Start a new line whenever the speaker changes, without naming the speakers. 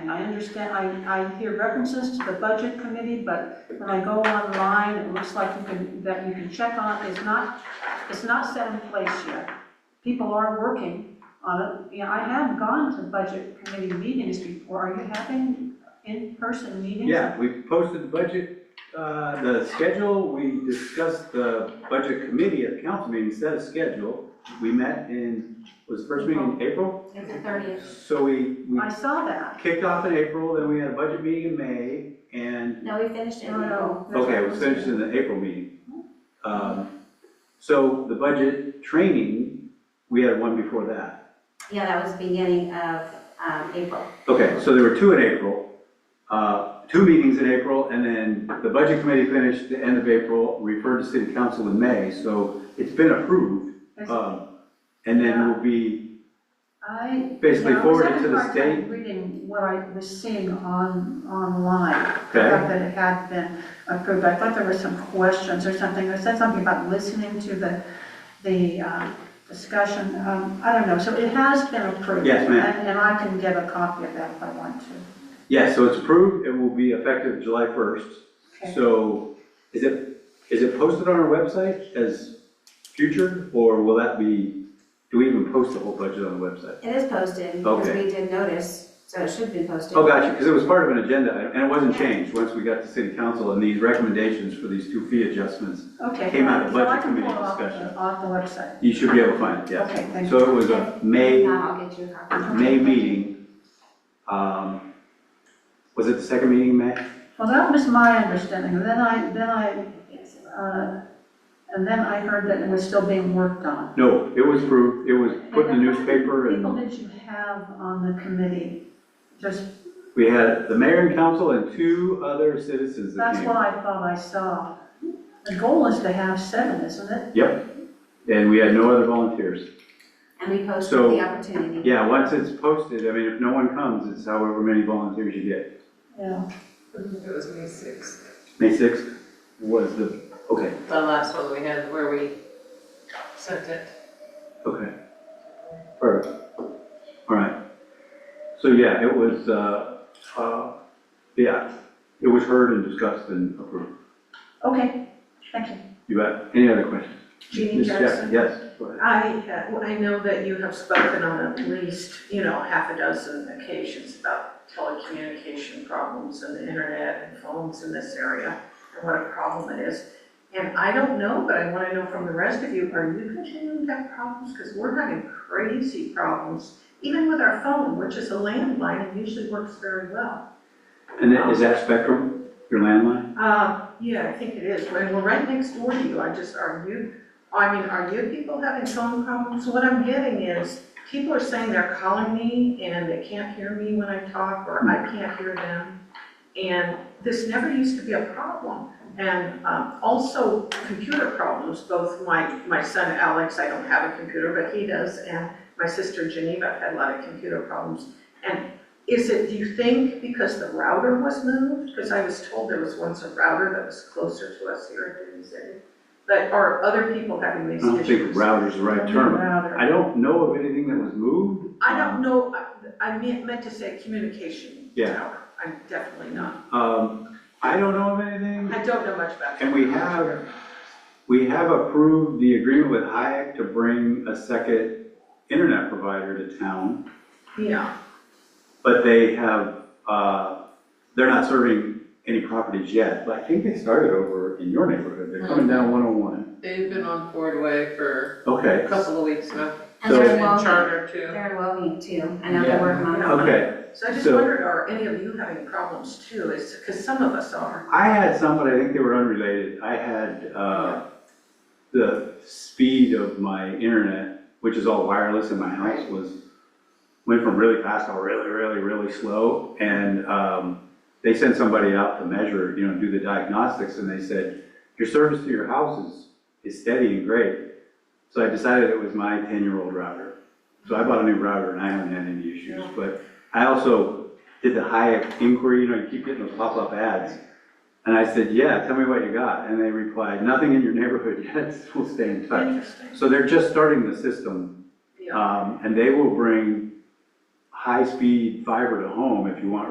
and I understand, I, I hear references to the budget committee, but when I go online, it looks like you can, that you can check on, it's not, it's not set in place yet. People are working on it, you know, I have gone to budget committee meetings before, are you having in-person meetings?
Yeah, we posted the budget, uh, the schedule, we discussed the budget committee at the council meeting, set a schedule. We met in, was the first meeting in April?
It's the thirtieth.
So we, we
I saw that.
kicked off in April, then we had a budget meeting in May, and,
No, we finished it.
Oh,
No, no. that's
okay, it
what
was
I
finished in the April meeting. Um, So the budget training, we had one before that.
Yeah, that was beginning of um, April.
Okay, so there were two in April, uh, two meetings in April, and then the budget committee finished the end of April, referred to city council in May, so it's been approved. um, And then will be,
I.
Basically
yeah,
forwarded to the
I was having a hard
state.
time reading what I was seeing on, online, the
Okay.
fact that it had been approved. I thought there were some questions or something, I said something about listening to the, the uh, discussion, um, I don't know, so it has been approved.
Yes, ma'am.
And, and I can get a copy of that if I want to.
yeah, so it's approved, it will be effective July 1st.
Okay.
So is it, is it posted on our website as future, or will that be, do we even post the whole budget on the website?
It is posted because
Okay.
we did notice, so it should be posted.
Oh, gotcha, because it was part of an agenda, item, and it wasn't changed once we got to city council, and these recommendations for these two fee adjustments,
Okay.
Came out of
so I
budget
can pull
committee
it off the-
discussion.
Off the website.
you should be able to find it,
Okay,
yes.
thank Uh, uh-huh.
So it was a May,
Now I'll get you a copy.
May meeting. Um, Was it the second meeting in May?
Well, that was my understanding, and then I, then I, uh, and then I heard that it was still being worked on.
No, it was approved, it was put in the newspaper,
People
and
that you have on the committee, just,
we had the mayor and council and two other citizens that
that's
came.
what I thought I saw. The goal is to have seven, isn't it?
Yep, and we had no other volunteers.
And we posted
So-
the opportunity.
Yeah, once it's posted, I mean, if no one comes, it's however many volunteers you get.
Yeah.
It was May sixth,
May 6th was the, okay,
the last one we had where we sent it.
okay. Perfect. All right. So yeah, it was, uh, uh, yeah, it was heard and discussed and approved.
Okay, thank you.
You bet. Any other questions?
Jeannie
Ms. Jackson,
Jackson.
Yes, go ahead.
I, uh, I know that you have spoken on at least, you know, half a dozen occasions about telecommunication problems and the internet and phones in this area and what a problem it is. And I don't know, but I want to know from the rest of you, are you continuing to have problems? Because we're having crazy problems, even with our phone, which is a landline and usually works very well.
And that- is that Spectrum, your landline?
Uh, yeah, I think it is. When we're right next door to you, I just, are you, I mean, are you people having phone problems? What I'm getting is, people are saying they're calling me and they can't hear me when I talk, or I
Hmm.
can't hear them. And this never used to be a problem. And, um, also computer problems, both my, my son Alex, I don't have a computer, but he does, and my sister Geneva had a lot of computer problems. And is it, do you think because the router was moved? Because I was told there was once a router that was closer to us here in Dune City. But are other people having these
I don't
issues?
think router's the right term.
Router.
I don't know of anything that was moved.
I don't know, I- I meant, meant to say communication
Yeah.
tower. I'm definitely not.
Um, I don't know of anything.
I don't know much about.
And we have, we have approved the agreement with Hayek to bring a second internet provider to town,
Yeah,
but they have, uh, they're not serving any properties yet, but I think they started over in your neighborhood, they're coming down 101.
They've been on Ford Way for a
Okay,
couple of weeks now,
And
So-
they're
and
welcome,
Charter too.
they're welcome too. I know
Yeah.
they're working on it.
okay.
so I just
So-
wondered, are any of you having problems too? Is, because some of us are.
I had some, but I think they were unrelated. I had, uh, the speed of my internet, which is all wireless in my house, was, went from really fast to really, really, really slow. And, um, they sent somebody out to measure, you know, do the diagnostics, and they said, your service to your house is, is steady and great. So I decided it was my ten-year-old router. So I bought a new router and I haven't had any issues, but I also did the Hayek inquiry, you know, you keep getting those pop-up ads. And I said, yeah, tell me what you got. And they replied, nothing in your neighborhood yet, we'll stay in touch.
Interesting.
So they're just starting the system,
Yeah.
um, and they will bring high-speed fiber to home if you want